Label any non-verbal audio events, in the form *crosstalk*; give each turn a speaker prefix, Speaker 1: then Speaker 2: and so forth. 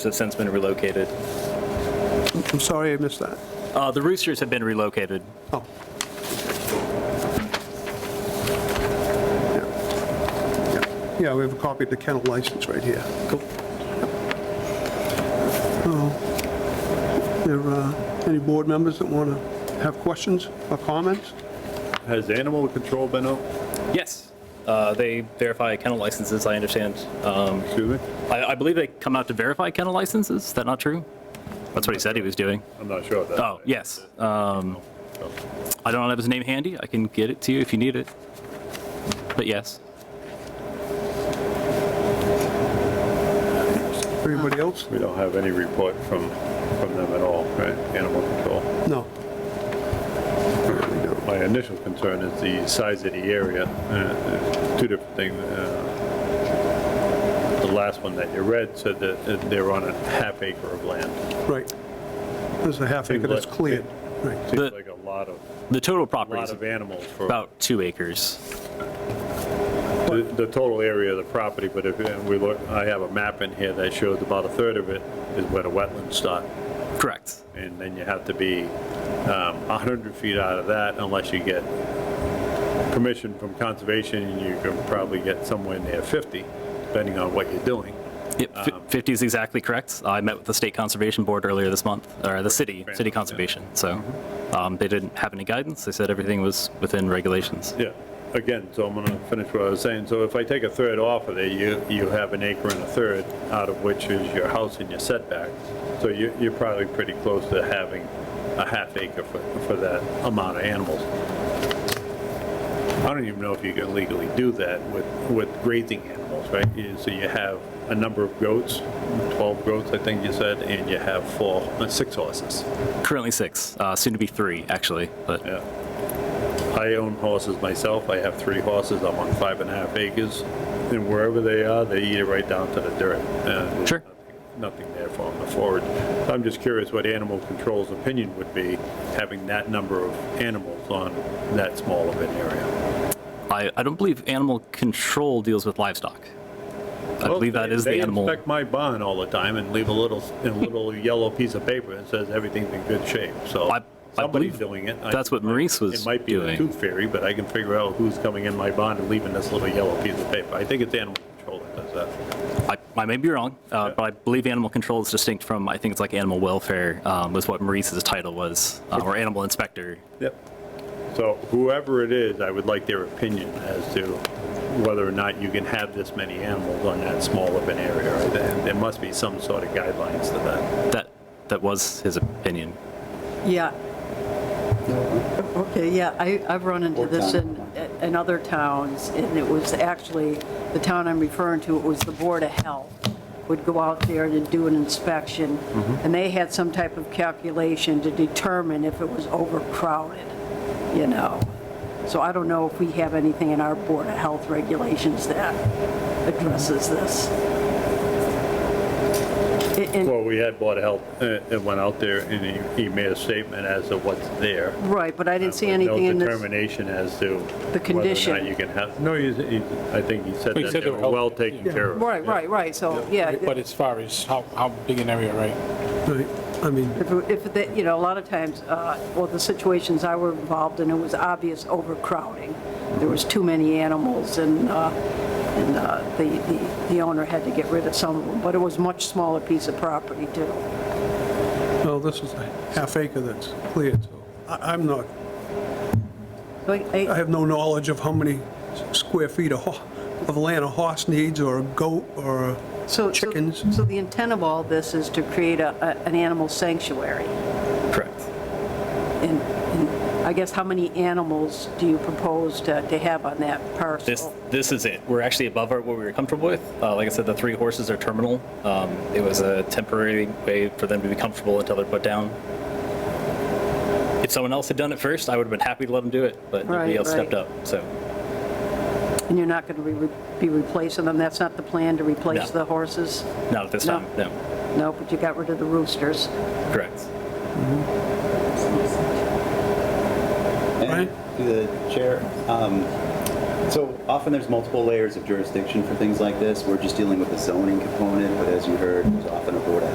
Speaker 1: have since been relocated.
Speaker 2: I'm sorry I missed that.
Speaker 1: Uh, The roosters have been relocated.
Speaker 2: Oh. Yeah. Yeah. Yeah, we have a copy of the kennel license right here. Cool. There uh, any board members that want to have questions or comments?
Speaker 3: Has animal control been out?
Speaker 1: Yes. Uh, They verify kennel licenses, I understand. Um,
Speaker 3: Excuse me?
Speaker 1: I I believe they come out to verify kennel licenses, is that not true? That's what he said he was doing.
Speaker 3: I'm not sure. That's
Speaker 1: Oh, yes. Um, I don't have his name handy, I can get it to you if you need it. But yes.
Speaker 2: Anybody else?
Speaker 3: We don't have any report from, from them at all, right? Animal control.
Speaker 2: No. We don't.
Speaker 3: My initial concern is the size of the area. Uh, uh, Two different things. uh, The last one that you read said that uh, they're on a half acre of land.
Speaker 2: Right. There's a half acre that's
Speaker 3: Seems like-
Speaker 2: cleared. Right.
Speaker 1: The-
Speaker 3: Seems like a lot of,
Speaker 1: The total property
Speaker 3: lot
Speaker 1: is
Speaker 3: of animals for
Speaker 1: about two acres.
Speaker 3: the the total area of the property, but if uh, we look, I have a map in here that shows about a third of it is where the wetlands start.
Speaker 1: Correct.
Speaker 3: and then you have to be um, 100 feet out of that unless you get permission from conservation, and you can probably get somewhere near 50, depending on what you're doing.
Speaker 1: Yep, fi- 50 is exactly correct. I met with the State Conservation Board earlier this month, or the city,
Speaker 3: Fair
Speaker 1: city
Speaker 3: enough, yeah.
Speaker 1: conservation, so um, they didn't have any guidance. They said everything was within regulations.
Speaker 3: Yeah, again, so I'm gonna finish what I was saying, so if I take a third off of there, you, you have an acre and a third, out of which is your house and your setback, so you, you're probably pretty close to having a half acre for, for that amount of animals. I don't even know if you can legally do that with, with grazing animals, right? You- So you have a number of goats, 12 goats, I think you said, and you have four, uh, six horses.
Speaker 1: Currently six, uh, soon to be three, actually, but
Speaker 3: Yeah. I own horses myself. I have three horses. I'm on five and a half acres. And wherever they are, they eat it right down to the dirt. Uh, there's
Speaker 1: Sure.
Speaker 3: nothing- Nothing there for them to forage. I'm just curious what animal control's opinion would be, having that number of animals on that small of an area.
Speaker 1: I, I don't believe animal control deals with livestock. I believe that is the animal.
Speaker 3: They inspect my barn all the time and leave a little,
Speaker 1: *laughs*
Speaker 3: a little yellow piece of paper that says everything's in good shape, so
Speaker 1: I- I
Speaker 3: somebody's
Speaker 1: believe
Speaker 3: doing it. I-
Speaker 1: That's what Maurice was
Speaker 3: It might be the
Speaker 1: doing.
Speaker 3: tooth fairy, but I can figure out who's coming in my bond and leaving this little yellow piece of paper. I think it's animal control that does that.
Speaker 1: I, I may be wrong, uh,
Speaker 3: Yeah.
Speaker 1: but I believe animal control is distinct from, I think it's like animal welfare, um, was what Maurice's title was, uh, or animal inspector.
Speaker 3: Yep. So whoever it is, I would like their opinion as to whether or not you can have this many animals on that small of an area. right? There there must be some sort of guidelines to that.
Speaker 1: That, that was his opinion.
Speaker 4: Yeah. Okay, yeah, I, I've run into this in, in other towns, and it was actually, the town I'm referring to, it was the Board of Health would go out there to do an inspection,
Speaker 3: Mm-hmm.
Speaker 4: and they had some type of calculation to determine if it was overcrowded, you know? So I don't know if we have anything in our Board of Health regulations that addresses this. And- and-
Speaker 3: Well, we had Board of Health, uh, it went out there and he, he made a statement as to what's there.
Speaker 4: Right, but I didn't see
Speaker 3: with
Speaker 4: anything in
Speaker 3: No
Speaker 4: this.
Speaker 3: determination as to.
Speaker 4: condition.
Speaker 3: Whether or not you can have, no, he, he- I think he said
Speaker 5: He
Speaker 3: that
Speaker 5: said
Speaker 3: they
Speaker 5: they
Speaker 3: were
Speaker 5: were
Speaker 3: well
Speaker 5: healthy.
Speaker 3: taken care of.
Speaker 4: Right, right, right, so, yeah,
Speaker 5: But as far as how, how big an area, right?
Speaker 2: Right. I mean,
Speaker 4: if, if, they- you know, a lot of times, uh, well, the situations I were involved in, it was obvious overcrowding. There was too many animals, and, uh, and uh, the, the- the owner had to get rid of some of them, but it was much smaller piece of property, too.
Speaker 2: well, this is a half acre that's cleared, so I- I'm not
Speaker 4: So I-
Speaker 2: I have no knowledge of how many square feet of ho- of land a horse needs, or a goat, or
Speaker 4: so- so-
Speaker 2: chickens.
Speaker 4: So the intent of all this is to create a, a- an animal sanctuary,
Speaker 1: Correct.
Speaker 4: and, and I guess how many animals do you propose to, to have on that parcel?
Speaker 1: This, this is it. We're actually above our- what we were comfortable with. Uh, Like I said, the three horses are terminal. Um, It was a temporary way for them to be comfortable until they're put down. If someone else had done it first, I would have been happy to let them do it, but nobody
Speaker 4: Right,
Speaker 1: else stepped
Speaker 4: right.
Speaker 1: up, so.
Speaker 4: And you're not going to be replacing them? That's not the plan, to replace
Speaker 1: No.
Speaker 4: the horses?
Speaker 1: Not at this
Speaker 4: No.
Speaker 1: time, no.
Speaker 4: No, but you got rid of the roosters.
Speaker 1: Correct.
Speaker 2: Right.
Speaker 6: And through the chair, um, so often there's multiple layers of jurisdiction for things like this. We're just dealing with the zoning component, but as you heard, there's often a Board of